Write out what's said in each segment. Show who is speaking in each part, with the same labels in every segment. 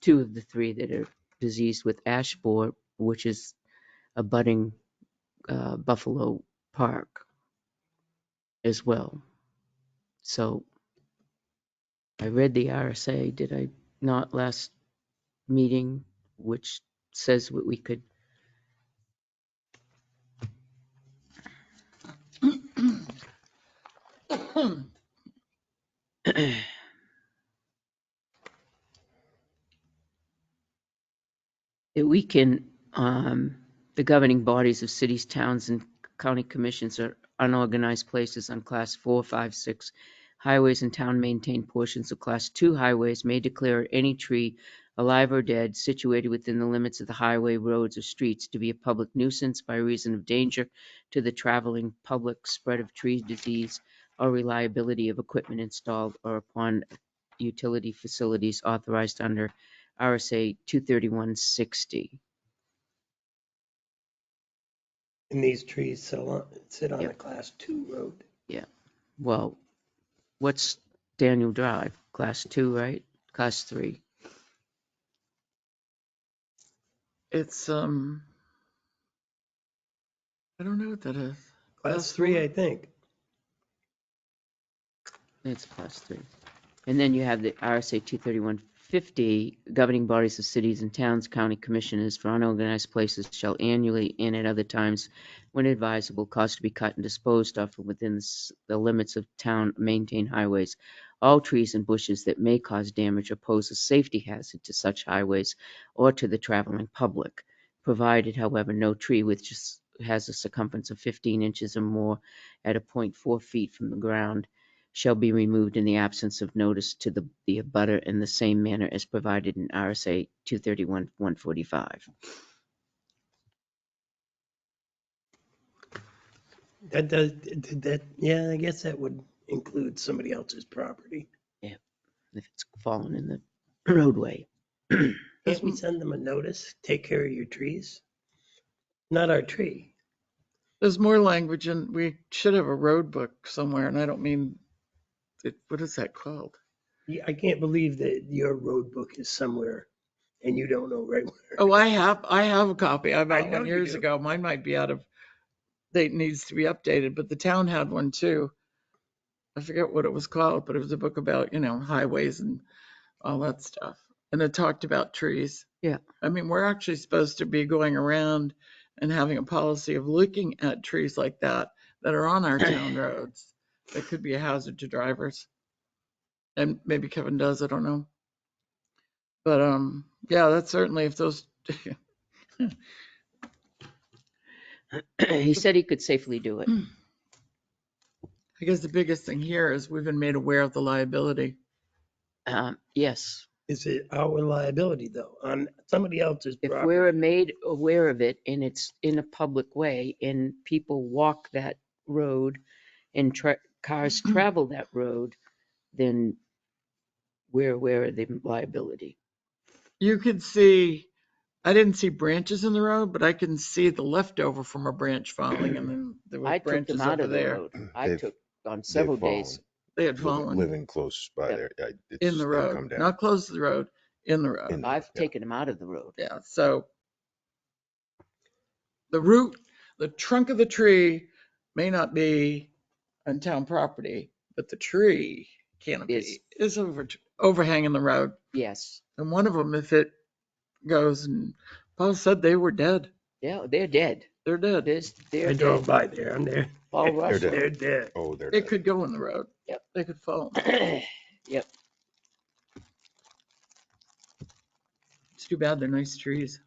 Speaker 1: two of the three that are diseased with ash borer, which is a budding uh, Buffalo Park as well. So I read the RSA, did I not, last meeting, which says what we could, that we can, um, the governing bodies of cities, towns, and county commissions are unorganized places on class four, five, six highways and town maintained portions of class two highways may declare any tree alive or dead situated within the limits of the highway, roads, or streets to be a public nuisance by reason of danger to the traveling public, spread of tree disease, or reliability of equipment installed or upon utility facilities authorized under RSA two thirty-one sixty.
Speaker 2: And these trees sit on, sit on a
Speaker 1: Yep.
Speaker 2: class two road.
Speaker 1: Well, what's Daniel Drive? Class two, right? Class three.
Speaker 3: It's, um, I don't know what that is.
Speaker 2: Class
Speaker 3: Class
Speaker 2: three,
Speaker 3: four?
Speaker 2: I think.
Speaker 1: It's class three. And then you have the RSA two thirty-one fifty, governing bodies of cities and towns, county commissioners for unorganized places shall annually and at other times when advisable, cause to be cut and disposed of from within the s- the limits of town maintained highways. All trees and bushes that may cause damage or pose a safety hazard to such highways or to the traveling public, provided however, no tree which is- has a circumference of fifteen inches or more at a point four feet from the ground shall be removed in the absence of notice to the, the abutter in the same manner as provided in RSA two thirty-one, one forty-five.
Speaker 2: That does, did that, yeah, I guess that would include somebody else's property.
Speaker 1: If it's fallen in the roadway.
Speaker 2: Can't we send them a notice? Take care of your trees? Not our tree.
Speaker 3: There's more language and we should have a road book somewhere and I don't mean, it, what is that called?
Speaker 2: Yeah, I can't believe that your road book is somewhere and you don't know right where.
Speaker 3: Oh, I have, I have a copy. I bought
Speaker 2: know Oh,
Speaker 3: one
Speaker 2: you
Speaker 3: years
Speaker 2: do.
Speaker 3: ago. Mine might be out of, date. needs to be updated, but the town had one too. I forget what it was called, but it was a book about, you know, highways and all that stuff. And it talked about trees.
Speaker 1: Yeah.
Speaker 3: I mean, we're actually supposed to be going around and having a policy of looking at trees like that that are on our town roads. That could be a hazard to drivers. And maybe Kevin does, I don't know. But, um, yeah, that's certainly if those,
Speaker 1: He said he could safely do it.
Speaker 3: I guess the biggest thing here is we've been made aware of the liability.
Speaker 1: Um, yes,
Speaker 2: Is it our liability though, on somebody else's
Speaker 1: if
Speaker 2: property?
Speaker 1: we're made aware of it and it's in a public way and people walk that road and tra- cars travel that road, then we're aware of the liability.
Speaker 3: You could see, I didn't see branches in the road, but I can see the leftover from a branch falling and then there
Speaker 1: I
Speaker 3: were
Speaker 1: took
Speaker 3: branches
Speaker 1: them out
Speaker 3: over
Speaker 1: of the
Speaker 3: there.
Speaker 1: road. I
Speaker 4: They've-
Speaker 1: took on
Speaker 4: They've
Speaker 1: several days.
Speaker 3: They had
Speaker 4: fallen, li-
Speaker 3: fallen
Speaker 4: Living close by
Speaker 1: Yeah.
Speaker 4: there. I- it's-
Speaker 3: in the
Speaker 4: they come
Speaker 3: road,
Speaker 4: down
Speaker 3: not close to the road, in the
Speaker 4: in
Speaker 3: road.
Speaker 4: the-
Speaker 1: I've
Speaker 4: yeah.
Speaker 1: taken them out of the road.
Speaker 3: Yeah, so the root, the trunk of the tree may not be on town property, but the tree
Speaker 1: Is-
Speaker 3: canopy is over, overhanging the road.
Speaker 1: Yes.
Speaker 3: And one of them, if it goes and Paul said they were dead,
Speaker 1: Yeah, they're dead.
Speaker 3: they're dead.
Speaker 1: There's,
Speaker 2: I
Speaker 1: they're dead.
Speaker 2: drove by there. I'm there.
Speaker 1: Paul
Speaker 4: They're
Speaker 1: Russell.
Speaker 2: They're dead.
Speaker 4: Oh, they're
Speaker 3: It
Speaker 4: dead.
Speaker 3: could go in the road.
Speaker 1: Yep.
Speaker 3: They could fall.
Speaker 1: Yep,
Speaker 3: It's too bad. They're nice trees.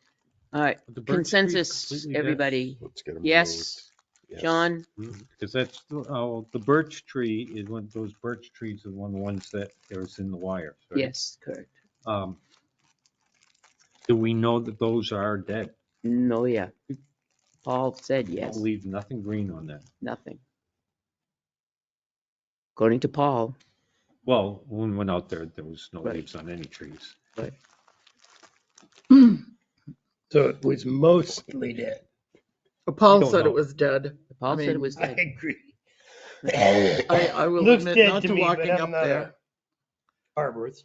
Speaker 1: all right.
Speaker 5: The birch tree's
Speaker 1: Consensus,
Speaker 5: completely dead.
Speaker 1: everybody?
Speaker 4: Let's get them.
Speaker 1: Yes, John?
Speaker 5: Because that's, oh, the birch tree is one, those birch trees are one of the ones that there's in the wire. right?
Speaker 1: Yes, correct.
Speaker 5: Um, Do we know that those are dead?
Speaker 1: No, yeah. Paul said yes,
Speaker 5: Leave nothing green on that.
Speaker 1: nothing. According to Paul,
Speaker 5: Well, when we went out there, there was no
Speaker 1: Right.
Speaker 5: leaves on any trees.
Speaker 2: So it was mostly dead.
Speaker 3: Paul
Speaker 5: don't
Speaker 3: said
Speaker 5: know.
Speaker 3: it was dead.
Speaker 1: Paul said
Speaker 3: mean,
Speaker 1: it was
Speaker 2: I
Speaker 1: dead.
Speaker 2: agree.
Speaker 3: I, I will
Speaker 2: Looks
Speaker 3: admit
Speaker 2: dead
Speaker 3: not to
Speaker 2: me, but
Speaker 3: walking
Speaker 2: I'm
Speaker 3: up
Speaker 2: not a
Speaker 3: there.
Speaker 2: Arborist.